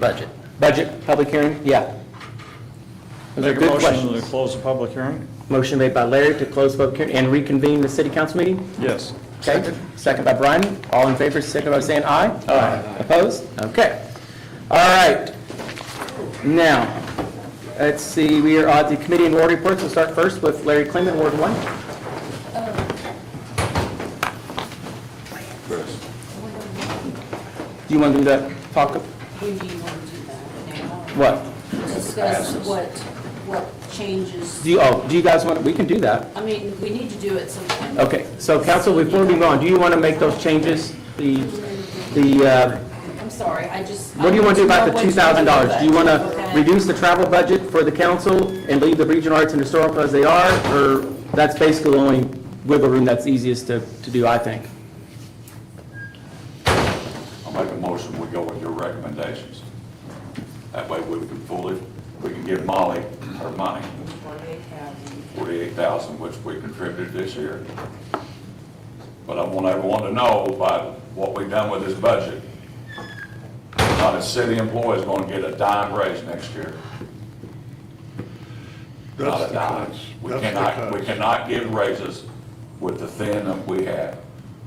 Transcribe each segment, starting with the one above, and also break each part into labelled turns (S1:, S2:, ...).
S1: Budget.
S2: Budget, public hearing, yeah. Those are
S3: Make a
S2: good
S3: motion to
S2: questions.
S3: close the public hearing?
S2: Motion made by Larry to close public hearing and reconvene the city council meeting.
S3: Yes.
S2: Okay, second by Brian. All in favor, signify by saying aye. Aye. Opposed? Okay. All right. Now, let's see, we are on the committee and ward reports. We'll start first with Larry Clement, Ward 1. Do you want to do that, talk, of-
S4: When do you want to do that
S2: what?
S4: now? Discuss what, what changes,
S2: Do you, oh, do you guys want, we can do that.
S4: I mean, we need to do it sometime.
S2: Okay, so council, before we move on, do you want to make those changes? The, the, uh,
S4: I'm sorry, I just.
S2: what do you want to do about the
S4: I don't know what
S2: $2,000? Do you want to
S4: Okay.
S2: reduce the travel budget for the council and leave the regional arts and historical as they are? Or that's basically the only wiggle room that's easiest to, to do, I think.
S5: I'll make a motion, we go with your recommendations. That way we can fully, we can give Molly her money, forty-eight thousand, which we contributed this year. But I want everyone to know by what we've done with this budget. Not a city employee is gonna get a dime raise next year.
S6: That's
S5: Not
S6: the
S5: a dime.
S6: cuts.
S5: We
S6: That's the
S5: cannot, we
S6: cuts.
S5: cannot give raises with the thin that we have.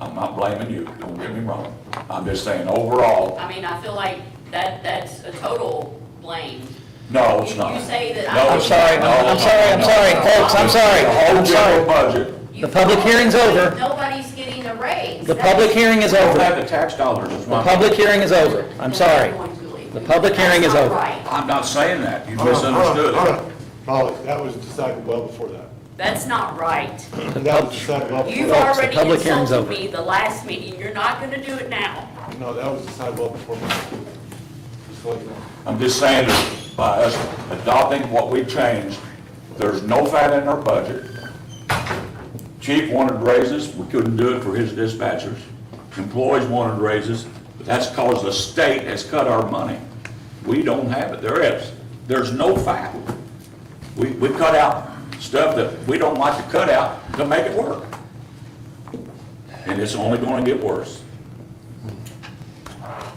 S5: I'm not blaming you, don't get me wrong. I'm just saying overall,
S7: I mean, I feel like that, that's a total blame.
S5: No, it's
S7: You-
S5: not.
S7: you say that I-
S5: No,
S7: I'm
S5: it's
S1: sorry,
S5: not.
S1: I'm
S5: No,
S1: sorry, I'm
S5: no,
S1: sorry,
S5: no, no.
S1: folks, I'm sorry,
S5: The whole
S1: I'm sorry.
S5: general budget.
S7: You-
S1: public hearing's over.
S7: Nobody's getting a raise.
S1: The public hearing is
S5: Don't
S1: over.
S5: have the tax dollars, is
S1: The
S5: what I'm,
S1: public hearing is over. I'm sorry. The public hearing is over.
S7: That's not right.
S5: I'm not saying that, you
S6: Hold on, hold on,
S5: misunderstood
S6: hold
S5: it.
S6: on. Molly, that was decided well before that.
S7: That's not right.
S6: That was decided well before
S7: You've
S6: that.
S7: already
S1: public hearing's
S7: insulted
S1: over.
S7: me the last meeting, you're not gonna do it now.
S6: No, that was decided well before that. Just to let you know.
S5: I'm just saying that by us adopting what we changed, there's no fat in our budget. Chief wanted raises, we couldn't do it for his dispatchers. Employees wanted raises, that's cause the state has cut our money. We don't have it, there is, there's no fat. We, we cut out stuff that we don't like to cut out to make it work. And it's only gonna get worse,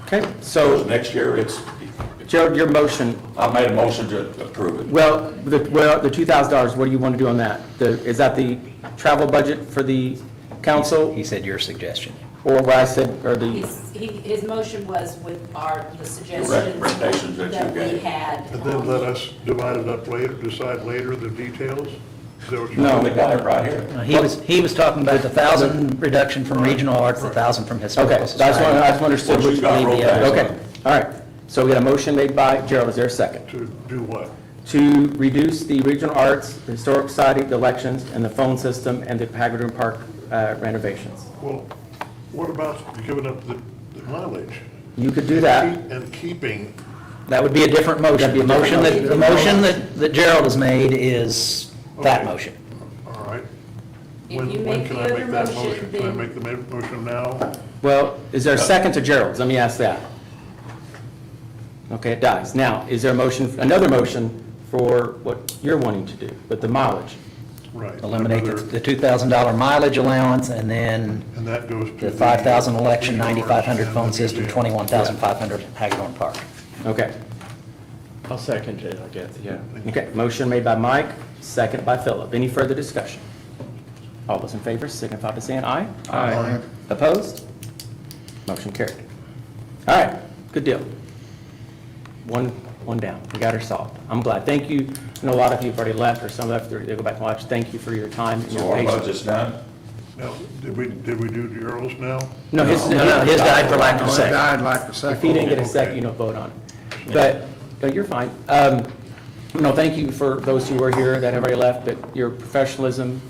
S2: Okay,
S5: because
S2: so
S5: next year it's,
S2: Gerald, your motion,
S5: I made a motion to approve it.
S2: well, the, well, the $2,000, what do you want to do on that? The, is that the travel budget for the council
S1: He said your suggestion.
S2: or what I said, or the,
S4: His, he, his motion was with our, the suggestions.
S5: recommendations that you
S4: we
S5: gave.
S4: had.
S6: And then let us divide it up later, decide later the details? Is that what you're-
S5: No, we got it right here.
S1: Uh, He was, he was talking about the thousand reduction from regional arts, the thousand from
S2: okay,
S1: historical
S2: that's what,
S1: society.
S2: that's what I understood.
S5: What you
S2: which
S5: got
S2: made the
S5: rolled
S2: other.
S5: back.
S2: uh, Okay, all right. So we got a motion made by Gerald, is there a second?
S6: To do what?
S2: to reduce the regional arts, the historic society, the elections, and the phone system, and the Pagadan Park uh, renovations.
S6: Well, what about giving up the the mileage?
S2: You could do that.
S6: And keeping,
S1: That would be a different
S2: That'd
S1: motion.
S2: be a
S1: The motion
S2: different
S1: that, the motion that that Gerald has made is that
S6: Okay.
S1: motion.
S6: all right.
S4: If
S6: When
S4: you
S6: when
S4: make
S6: can
S4: the
S6: I
S4: other
S6: make that
S4: motion,
S6: motion? Can I
S4: then-
S6: make the ma- motion now?
S2: Well, is there a second to Gerald's? Let me ask that. Okay, it dies. Now, is there a motion, another motion for what you're wanting to do with the mileage?
S6: Right.
S1: Eliminate the-
S6: another-
S1: the two thousand dollar mileage allowance and then
S6: And that goes to.
S1: the five thousand election, ninety-five hundred
S6: and
S1: phone
S6: the
S1: system,
S6: museum.
S1: twenty-one thousand five hundred Hagedorn Park.
S2: Okay,
S3: I'll second it, I guess, yeah.
S2: okay. Motion made by Mike, second by Philip. Any further discussion? All those in favor signify by saying aye.
S3: Aye.
S2: Opposed? Motion carried. All right, good deal. One, one down, we got her solved. I'm glad, thank you, I know a lot of you have already left, or some left, they'll go back and watch, thank you for your time and
S5: So
S2: your
S5: our
S2: patience.
S5: budget's done?
S6: Now, did we, did we do Daryl's now?
S2: No, his, no, no, his died for lack of a second.
S8: I'd like to second.
S2: If you didn't get a second, you don't vote on it. But, but you're fine. Um, No, thank you for those who were here that have already left, but your professionalism,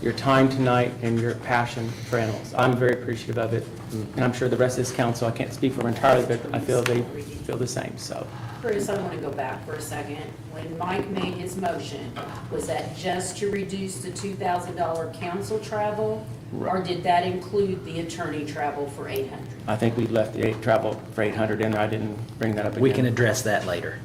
S2: your time tonight, and your passion for animals. I'm very appreciative of it, and I'm sure the rest of this council, I can't speak for them entirely, but I feel they feel the same, so.
S4: Chris, I want to go back for a second. When Mike made his motion, was that just to reduce the two thousand dollar council travel? Or did that include the attorney travel for eight hundred?
S2: I think we left the eight- travel for 800 in there, I didn't bring that up again.
S1: We can address that later.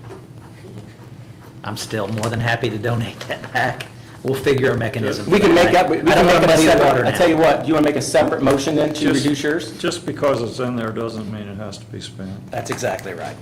S1: I'm still more than happy to donate that back. We'll figure a mechanism.
S2: We can make that, we
S1: I
S2: we
S1: don't
S2: can make
S1: wanna
S2: it a
S1: muddy the water
S2: separate, I
S1: now.
S2: tell you what, do you want to make a separate motion then to
S3: Just-
S2: reduce yours?
S3: Just because it's in there doesn't mean it has to be spent.
S1: That's exactly right.